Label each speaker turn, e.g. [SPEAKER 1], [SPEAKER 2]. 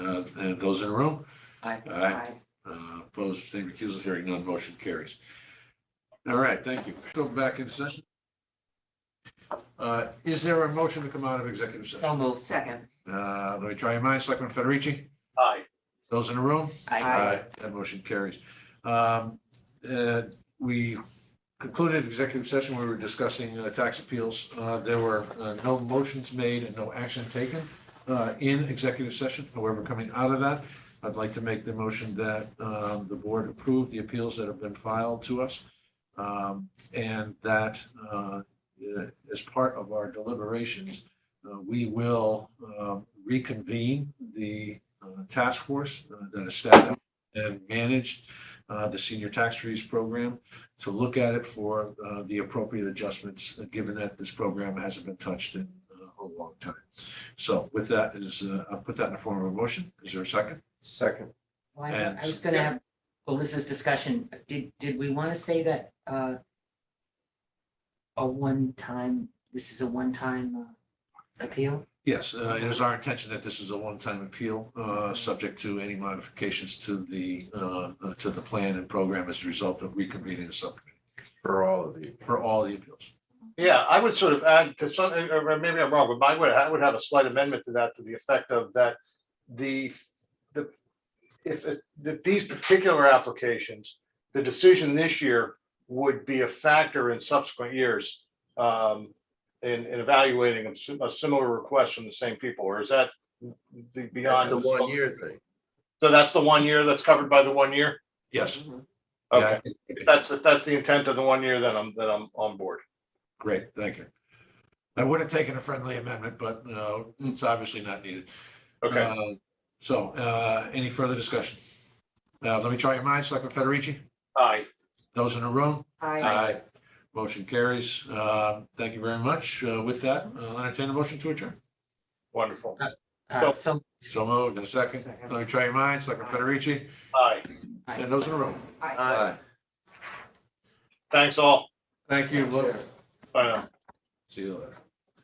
[SPEAKER 1] Uh, and those in the room?
[SPEAKER 2] Aye.
[SPEAKER 1] Aye. Uh, opposed, same recusal, hearing none, motion carries. All right, thank you. Go back in session. Uh, is there a motion to come out of executive session?
[SPEAKER 2] So moved.
[SPEAKER 3] Second.
[SPEAKER 1] Uh, let me try your mind, Selectman Federici,
[SPEAKER 4] Aye.
[SPEAKER 1] those in the room?
[SPEAKER 3] Aye.
[SPEAKER 1] That motion carries. Um, uh, we concluded executive session, we were discussing uh, tax appeals. Uh, there were uh, no motions made and no action taken, uh, in executive session. However, coming out of that, I'd like to make the motion that, um, the board approve the appeals that have been filed to us. Um, and that, uh, uh, as part of our deliberations, uh, we will, um, reconvene the, uh, task force uh, that is staffed up and managed uh, the senior tax freeze program to look at it for uh, the appropriate adjustments, uh, given that this program hasn't been touched in uh, a long time. So with that is, uh, I'll put that in the form of a motion. Is there a second?
[SPEAKER 4] Second.
[SPEAKER 2] Well, I I was gonna
[SPEAKER 1] And-
[SPEAKER 2] have, well, this is discussion. Did, did we want to say that, uh, a one-time, this is a one-time uh, appeal?
[SPEAKER 1] Yes, uh, it is our intention that this is a one-time appeal, uh, subject to any modifications to the, uh, uh, to the plan and program as a result of reconvening the subcommittee
[SPEAKER 4] For all of you.
[SPEAKER 1] for all the appeals.
[SPEAKER 4] Yeah, I would sort of add to some, or or maybe I'm wrong, but my, would- I would have a slight amendment to that to the effect of that the, the, if, if- that these particular applications, the decision this year would be a factor in subsequent years um, in, in evaluating a sim- a similar request from the same people, or is that the
[SPEAKER 5] That's
[SPEAKER 4] beyond?
[SPEAKER 5] the one year thing.
[SPEAKER 4] So that's the one year that's covered by the one year?
[SPEAKER 1] Yes,
[SPEAKER 4] Okay,
[SPEAKER 1] Yeah.
[SPEAKER 4] if that's, if that's the intent of the one year, then I'm, then I'm on board.
[SPEAKER 1] Great, thank you. I would have taken a friendly amendment, but uh, it's obviously not needed.
[SPEAKER 4] Okay,
[SPEAKER 1] Uh, So uh, any further discussion? Uh, Let me try your minds, Selectman Federici,
[SPEAKER 4] aye.
[SPEAKER 1] those in the room?
[SPEAKER 3] Aye.
[SPEAKER 1] Motion carries. Uh, Thank you very much. Uh, With that, I'll entertain a motion to adjourn.
[SPEAKER 4] Wonderful.
[SPEAKER 2] Uh, so,
[SPEAKER 1] So moved in a second.
[SPEAKER 3] Second.
[SPEAKER 1] Let me try your minds, Selectman Federici,
[SPEAKER 4] Aye.
[SPEAKER 1] and those in the room?
[SPEAKER 3] Aye.
[SPEAKER 4] Thanks all.
[SPEAKER 1] Thank you. Lou.
[SPEAKER 4] Bye now.
[SPEAKER 1] See you later.